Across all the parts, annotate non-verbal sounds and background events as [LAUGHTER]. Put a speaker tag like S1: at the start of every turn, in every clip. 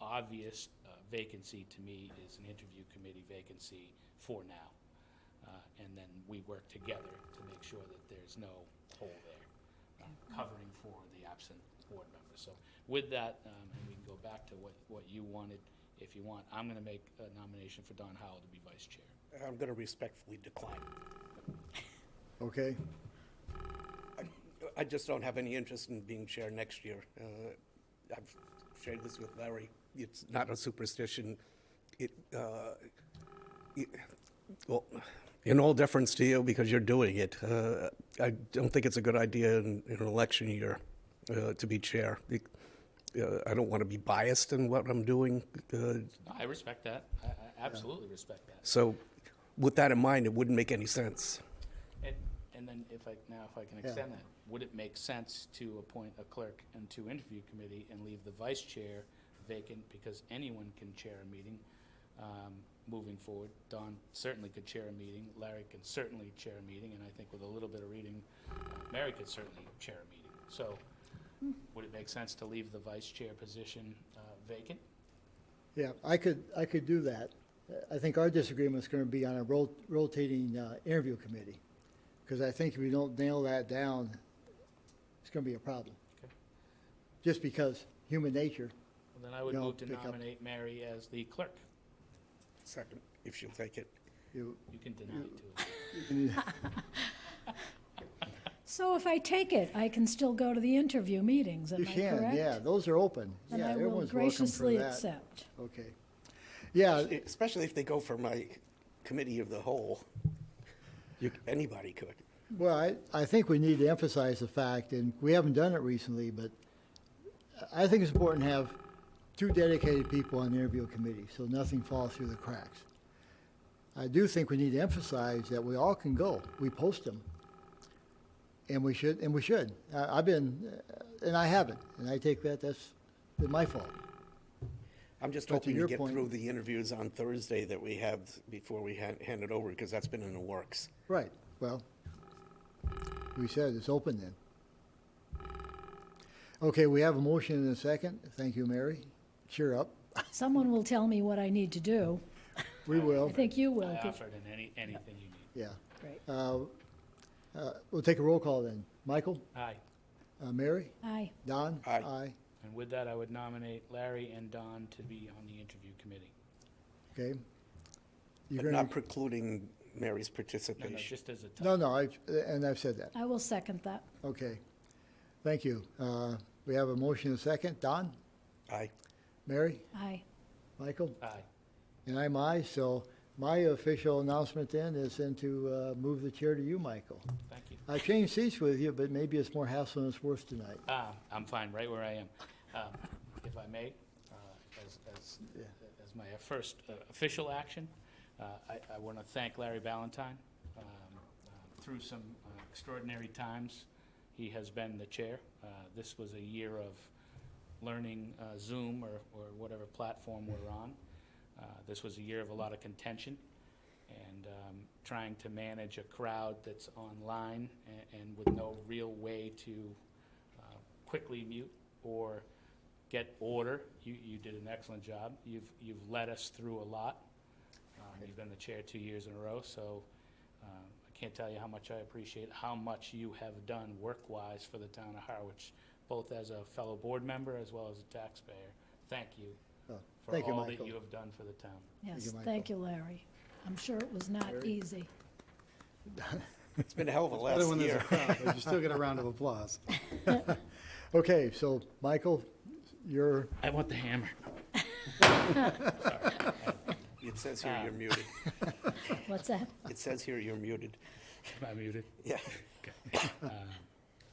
S1: obvious uh, vacancy to me is an interview committee vacancy for now. Uh, And then we work together to make sure that there's no hole there, uh, covering for the absent board member. So with that, um, and we can go back to what, what you wanted, if you want, I'm going to make a nomination for Don Howell to be vice chair.
S2: I'm going to respectfully decline.
S3: Okay,
S2: I just don't have any interest in being chair next year. Uh, I've shared this with Larry. It's not a superstition. It, uh, it- well, in all deference to you, because you're doing it, uh, I don't think it's a good idea in in an election year uh, to be chair. It- uh, I don't want to be biased in what I'm doing. uh,
S1: I respect that. I I absolutely respect that.
S2: So with that in mind, it wouldn't make any sense.
S1: And, and then if I, now if I can extend that, would it make sense to appoint a clerk and two interview committee and leave the vice chair vacant because anyone can chair a meeting, um, moving forward? Don certainly could chair a meeting, Larry can certainly chair a meeting, and I think with a little bit of reading, Mary could certainly chair a meeting. So would it make sense to leave the vice chair position, uh, vacant?
S3: yeah, I could, I could do that. I think our disagreement's gonna be on a rot- rotating, uh, interview committee. Cause I think if we don't nail that down, it's gonna be a problem.
S1: Okay.
S3: Just because human nature,
S1: Well, Then I would
S3: No,
S1: move to
S3: pick up.
S1: nominate Mary as the clerk.
S2: Second. If you'll take it.
S3: you,
S1: You can deny it too.
S4: So if I take it, I can still go to the interview meetings, am
S3: you
S4: I
S3: can,
S4: correct?
S3: yeah, those are open.
S4: And
S3: Yeah,
S4: I will
S3: everyone's welcome for
S4: graciously
S3: that.
S4: accept.
S3: Okay. Yeah,
S2: Uh, Especially if they go for my committee of the whole. You, anybody could.
S3: Well, I, I think we need to emphasize the fact, and we haven't done it recently, but I think it's important to have two dedicated people on the interview committee, so nothing falls through the cracks. I do think we need to emphasize that we all can go. We post them. And we should, and we should. I, I've been, uh, and I haven't, and I take that, that's been my fault.
S2: I'm just
S3: But to
S2: hoping to
S3: your
S2: get
S3: point-
S2: through the interviews on Thursday that we have before we hand, hand it over, because that's been in the works.
S3: Right, well, we said it's open then. Okay, we have a motion and a second. Thank you, Mary. Cheer up.
S4: Someone will tell me what I need to do.
S3: We
S4: I
S3: will,
S4: think you will.
S1: I
S4: be-
S1: offered in any, anything you need.
S3: yeah.
S4: Great.
S3: Uh, uh, We'll take a roll call then. Michael,
S1: Aye.
S3: uh, Mary,
S4: Aye.
S3: Don?
S2: Aye.
S1: And with that, I would nominate Larry and Don to be on the interview committee.
S3: okay.
S2: But
S3: You're gonna,
S2: not precluding Mary's
S1: No, no,
S2: participation.
S1: just as a tie.
S3: no, no, I, and I've said that.
S4: I will second that.
S3: Okay. Thank you. Uh, We have a motion and a second. Don,
S2: I,
S3: Mary,
S4: Aye.
S3: Michael?
S1: Aye.
S3: And I'm aye, so my official announcement then is then to uh, move the chair to you, Michael.
S1: Thank you.
S3: I changed seats with you, but maybe it's more hassle than it's worth tonight.
S1: Ah, I'm fine, right where I am. Um, If I may, uh, as, as,
S3: Yeah.
S1: as my first uh, official action, uh, I, I want to thank Larry Ballantyne. Um, uh, Through some uh, extraordinary times, he has been the chair. Uh, This was a year of learning uh, Zoom or, or whatever platform we're on. Uh, This was a year of a lot of contention and um, trying to manage a crowd that's online a- and with no real way to uh, quickly mute or get order. You, you did an excellent job. You've, you've led us through a lot. Um, You've been the chair two years in a row, so um, I can't tell you how much I appreciate how much you have done work-wise for the town of Harwich, both as a fellow board member as well as a taxpayer. Thank you
S3: Oh,
S1: for
S3: Thank you,
S1: all that
S3: Michael.
S1: you have done for the town.
S4: Yes,
S3: Michael.
S4: thank you, Larry. I'm sure it was not easy.
S2: it's been a hell of a
S5: Other
S2: last
S5: one there's a
S2: year.
S5: crowd, but you still get a round of applause.
S3: Okay, so Michael, you're,
S1: I want the hammer. [LAUGHS]
S2: It says here
S1: Ah.
S2: you're muted.
S4: What's that?
S2: It says here you're muted.
S1: Am I muted?
S2: Yeah.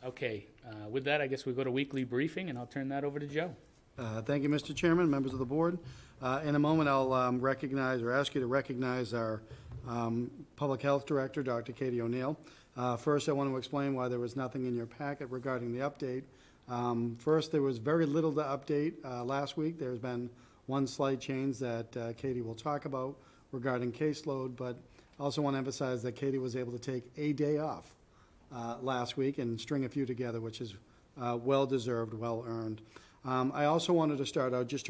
S1: Okay, uh, with that, I guess we go to weekly briefing, and I'll turn that over to Joe.
S5: Uh, Thank you, Mr. Chairman, members of the board. Uh, In a moment, I'll um, recognize, or ask you to recognize our um, Public Health Director, Dr. Katie O'Neill. Uh, First, I want to explain why there was nothing in your packet regarding the update. Um, First, there was very little to update uh, last week. There's been one slight change that uh, Katie will talk about regarding caseload, but I also want to emphasize that Katie was able to take a day off uh, last week and string a few together, which is uh, well-deserved, well-earned. Um, I also wanted to start out just to